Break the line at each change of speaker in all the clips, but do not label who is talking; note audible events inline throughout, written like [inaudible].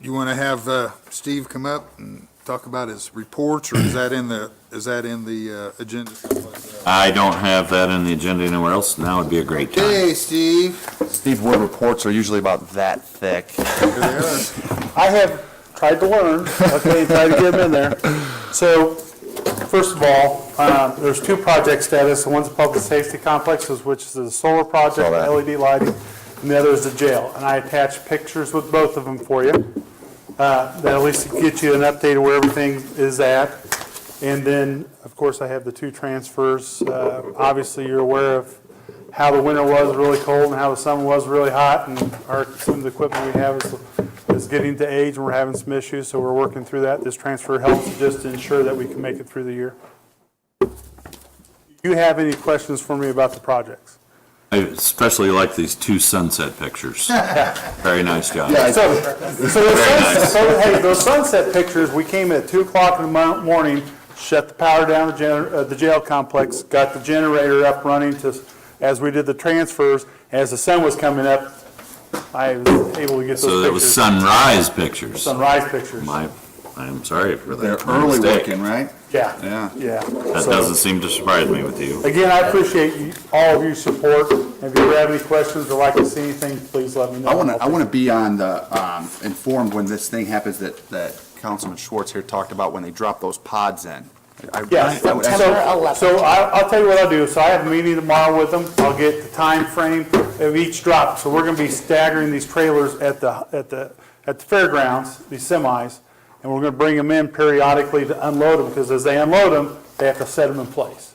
You want to have uh, Steve come up and talk about his reports, or is that in the, is that in the uh, agenda?
I don't have that in the agenda anywhere else. Now would be a great time.
Hey, Steve.
Steve Wood reports are usually about that thick.
Here they are.
I have tried to learn, okay, tried to get them in there. So, first of all, uh, there's two project status, one's a public safety complexes, which is the solar project,
Saw that.
LED lighting, and the other is the jail. And I attached pictures with both of them for you, uh, that at least get you an update of where everything is at. And then, of course, I have the two transfers. Uh, Obviously, you're aware of how the winter was really cold and how the summer was really hot, and our, some of the equipment we have is, is getting to age, and we're having some issues, so we're working through that. This transfer helps just to ensure that we can make it through the year. Do you have any questions for me about the projects?
I especially like these two sunset
[laughs]
pictures. Very nice job.
So, so the sunset, so, hey, those sunset pictures, we came at two o'clock in the mo- morning, shut the power down, the gener, uh, the jail complex, got the generator up running to, as we did the transfers, as the sun was coming up, I was able to get those pictures.
So that was sunrise pictures.
Sunrise pictures,
My, I'm sorry for
[laughs] They're
that. My
early
mistake.
working, right?
yeah.
Yeah.
Yeah.
That doesn't seem to surprise me with you.
Again, I appreciate you, all of your support. If you have any questions or like to see anything, please let me know.
I want to, I want to be on the, um, informed when this thing happens that, that Councilman Schwartz here talked about when they drop those pods in. I- I-
Yes,
that would-
so, so I, I'll tell you what I'll do, so I have a meeting tomorrow with them, I'll get the time frame of each drop, so we're gonna be staggering these trailers at the, at the, at the fairgrounds, these semis, and we're gonna bring them in periodically to unload them, because as they unload them, they have to set them in place.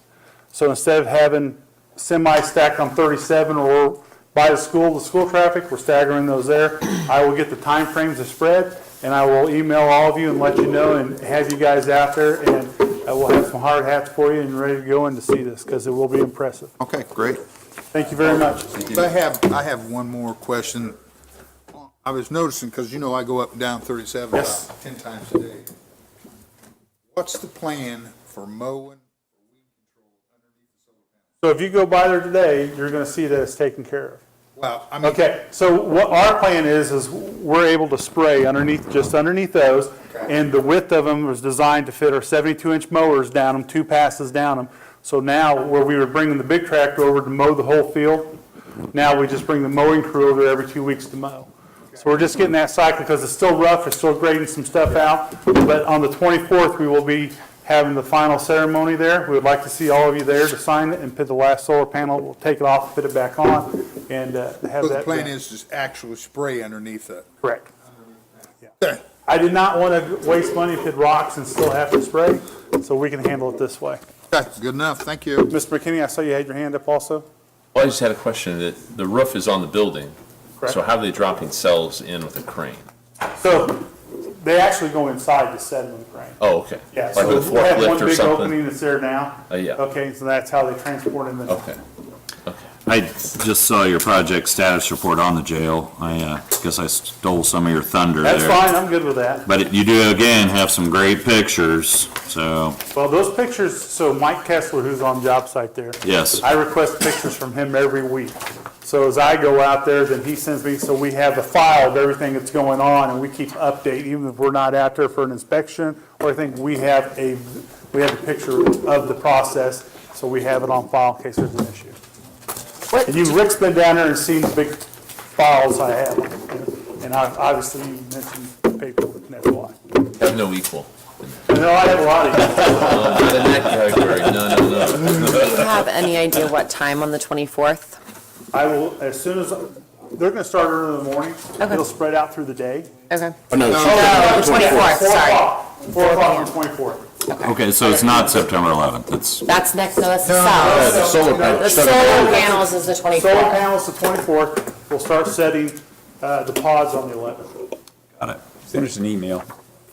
So instead of having semi stacked on thirty-seven or by the school, the school traffic, we're staggering those there. I will get the time frames of spread, and I will email all of you and let you know and have you guys out there, and I will have some hard hats for you and ready to go in to see this, because it will be impressive.
Okay, great.
Thank you very much.
I have, I have one more question. I was noticing, because you know I go up and down 37
Yes.
about 10 times a day. What's the plan for mowing?
So if you go by there today, you're gonna see that it's taken care of.
Well, I mean.
Okay, so what our plan is, is we're able to spray underneath, just underneath those, and the width of them was designed to fit our 72-inch mowers down them, two passes down them. So now, where we were bringing the big tractor over to mow the whole field, now we just bring the mowing crew over every two weeks to mow. So we're just getting that cycle, because it's still rough, it's still grading some stuff out, but on the 24th, we will be having the final ceremony there. We would like to see all of you there to sign it and put the last solar panel, we'll take it off, fit it back on, and uh, have
So
that.
the plan
done.
is just actually spray underneath it.
Correct. Yeah.
Okay.
I did not want to waste money, hit rocks and still have to spray, so we can handle it this way.
Okay, good enough, thank you.
Mr. McKinney, I saw you had your hand up also.
Well, I just had a question, that the roof is on the building,
Correct.
so how are they dropping cells in with a crane?
So they actually go inside to set them in crane.
Oh, okay.
Yeah,
Like
so
with a
we have one
forklift or
big opening
something?
that's there now.
Uh, yeah.
Okay, so that's how they transport in the,
Okay, okay.
I just saw your project status report on the jail. I uh, guess I stole some of your thunder there.
that's fine, I'm good with that.
But you do again have some great pictures, so
Well, those pictures, so Mike Kessler, who's on job site there.
yes.
I request pictures from him every week. So as I go out there, then he sends me, so we have a file of everything that's going on, and we keep update, even if we're not out there for an inspection, or I think we have a, we have a picture of the process, so we have it on file in case there's an issue. And you, Rick's been down there and seen the big files I have, and I, obviously you mentioned paperwork, and that's why.
Have no equal.
And no, I have a lot of,
Not in that category, no, no, no.
Do you have any idea what time on the 24th?
I will, as soon as, they're gonna start early in the morning, it'll spread out through the day.
Okay.
No,
the 24th, sorry.
Four o'clock on twenty-fourth.
Okay, so it's not September 11th. It's
That's next, no, that's the south.
The solar
The
panels.
solar panels is the
Solar
24th.
panels the twenty-fourth, we'll start setting, uh, the pods on the eleventh.
got it.
Send us an email.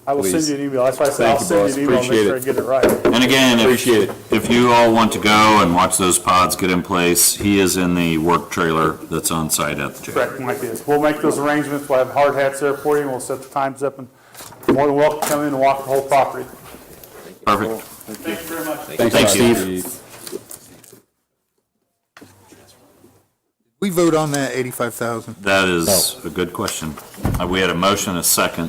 I will send
Please.
you an email, that's why I said I'll
Thank you,
send you
boss.
an email,
Appreciate
and make sure I
it.
get it right.
And again,
Appreciate it.
if, if you all want to go and watch those pods get in place, he is in the work trailer that's on site at the jail.
Correct, like this, we'll make those arrangements, we'll have hard hats there for you, and we'll set the times up, and you're more than welcome to come in and walk the whole property.
Perfect.
Thank you very much.
Thanks, Steve.
We vote on that 85,000.
That is a good question. Uh, We had a motion, a second.